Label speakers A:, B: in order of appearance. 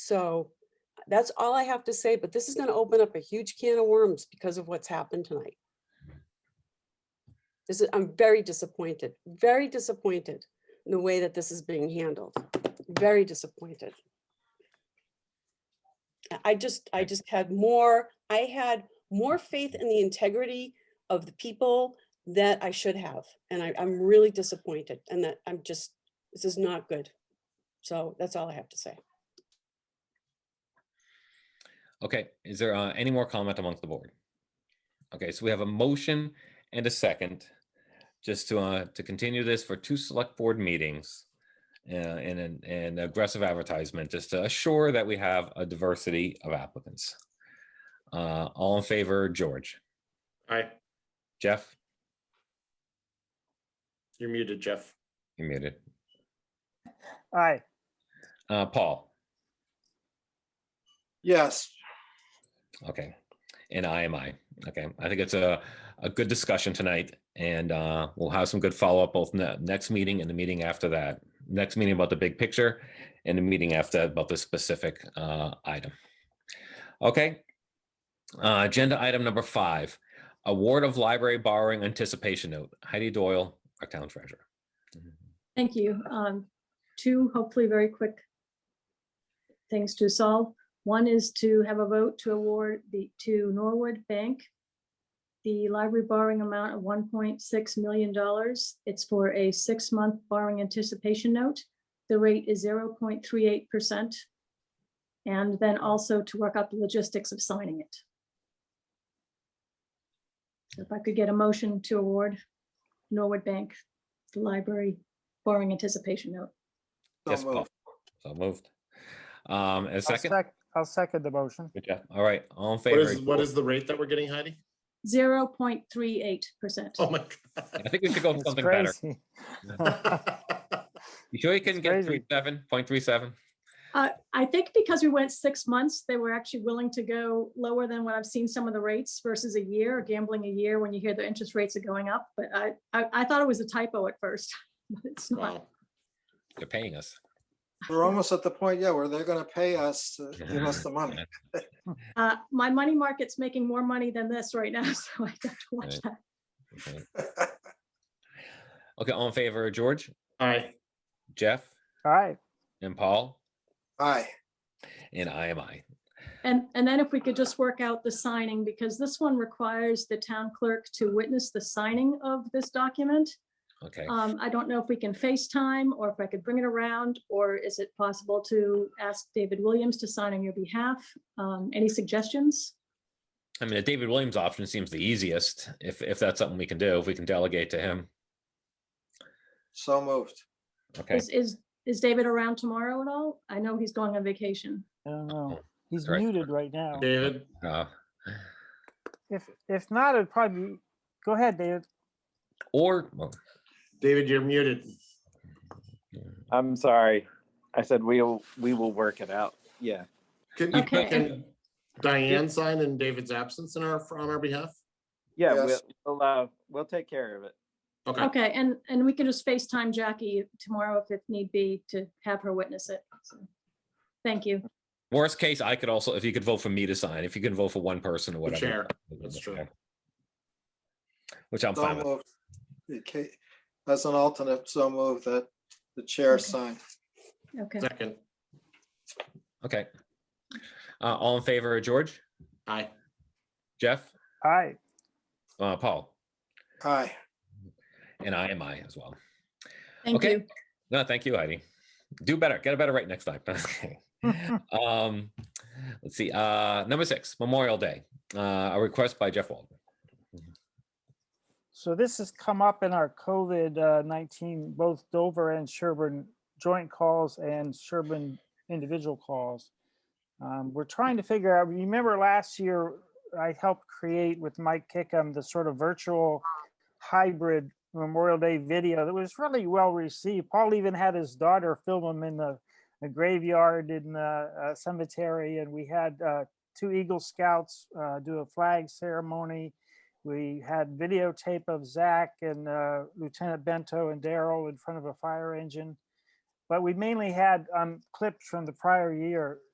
A: So that's all I have to say, but this is going to open up a huge can of worms because of what's happened tonight. This is, I'm very disappointed, very disappointed in the way that this is being handled. Very disappointed. I- I just, I just had more, I had more faith in the integrity of the people that I should have. And I, I'm really disappointed and that I'm just, this is not good. So that's all I have to say.
B: Okay, is there uh, any more comment amongst the board? Okay, so we have a motion and a second, just to uh, to continue this for two select board meetings. Uh, and an and aggressive advertisement, just to assure that we have a diversity of applicants. Uh, all in favor, George,
C: Aye,
B: Jeff,
C: you're muted, Jeff.
B: you muted,
D: Aye,
B: uh, Paul,
E: Yes,
B: okay. And I am I, okay, I think it's a a good discussion tonight and uh, we'll have some good follow-up both ne- next meeting and the meeting after that. Next meeting about the big picture and the meeting after that about the specific uh, item. Okay. Uh, Agenda item number five, award of library borrowing anticipation note. Heidi Doyle, our town treasurer.
F: Thank you. Um, Two hopefully very quick things to solve. One is to have a vote to award the, to Norwood Bank, the library borrowing amount of $1.6 million. It's for a six-month borrowing anticipation note. The rate is 0.38%. And then also to work out the logistics of signing it. If I could get a motion to award Norwood Bank, the library borrowing anticipation note.
B: Yes,
E: so
B: Paul.
E: moved.
B: So moved. Um, and a
D: I'll
B: second,
D: sec, I'll second the motion.
B: Good job. all right, all in
C: What
B: favor.
C: is, what is the rate that we're getting, Heidi?
F: Zero point three eight percent.
C: Oh my
B: I think we should go with
D: It's
B: something better.
D: crazy.
C: God.
B: You sure you can get
D: crazy.
B: three seven, point three seven?
F: Uh, I think because we went six months, they were actually willing to go lower than what I've seen some of the rates versus a year, gambling a year when you hear the interest rates are going up. But I, I, I thought it was a typo at first, but it's not.
C: Wow.
B: They're paying us.
E: We're almost at the point, yeah, where they're gonna pay us, to give us the money.
F: Uh, my money market's making more money than this right now, so I have to watch
B: Right.
F: that.
B: Okay. Okay, all in favor, George,
C: Aye,
B: Jeff,
D: All right,
B: and Paul,
E: Aye,
B: and I am I.
F: And, and then if we could just work out the signing, because this one requires the town clerk to witness the signing of this document.
B: Okay,
F: Um, I don't know if we can FaceTime or if I could bring it around, or is it possible to ask David Williams to sign on your behalf? Um, any suggestions?
B: I mean, the David Williams option seems the easiest, if, if that's something we can do, if we can delegate to him.
E: so moved.
B: Okay,
F: Is, is, is David around tomorrow at all? I know he's going on vacation.
D: I don't know.
B: Uh-oh.
D: He's
B: All right.
D: muted right now.
C: David,
B: uh,
D: If, if not, it'd probably, be- go ahead, David.
B: or, well,
C: David, you're muted.
G: I'm sorry. I said we'll, we will work it out. Yeah.
C: Can,
F: Okay.
C: can Diane sign in David's absence in our, on our behalf?
G: Yeah, we'll,
E: Yes.
G: we'll, uh, we'll take care of it.
C: Okay,
F: Okay, and, and we can just FaceTime Jackie tomorrow if it need be to have her witness it. So, Thank you.
B: worst case, I could also, if you could vote for me to sign, if you can vote for one person or
C: the
B: whatever.
C: chair, that's
B: the
C: true.
B: chair. Which I'm
E: So
B: fine with.
E: moved. Okay, As an alternate, so moved that the chair
F: Okay.
E: signed.
F: Okay.
C: second,
B: Okay. Uh, all in favor, George,
C: aye.
B: Jeff,
D: All right,
B: uh, Paul,
E: Aye,
B: and I am I as well.
F: Thank
B: Okay.
F: you.
B: No, thank you, Heidi. Do better. Get a better right next time. Okay. um, let's see. Uh, number six, Memorial Day. Uh, a request by Jeff Waldman.
D: so this has come up in our COVID-19, both Dover and Sherburne joint calls and Sherburne individual calls. Um, We're trying to figure out, remember last year, I helped create with Mike Kickham the sort of virtual hybrid Memorial Day video that was really well received. Paul even had his daughter film him in the the graveyard in the uh, cemetery, and we had uh, two Eagle Scouts uh, do a flag ceremony. We had videotape of Zach and uh, Lieutenant Bento and Daryl in front of a fire engine. But we mainly had um, clips from the prior year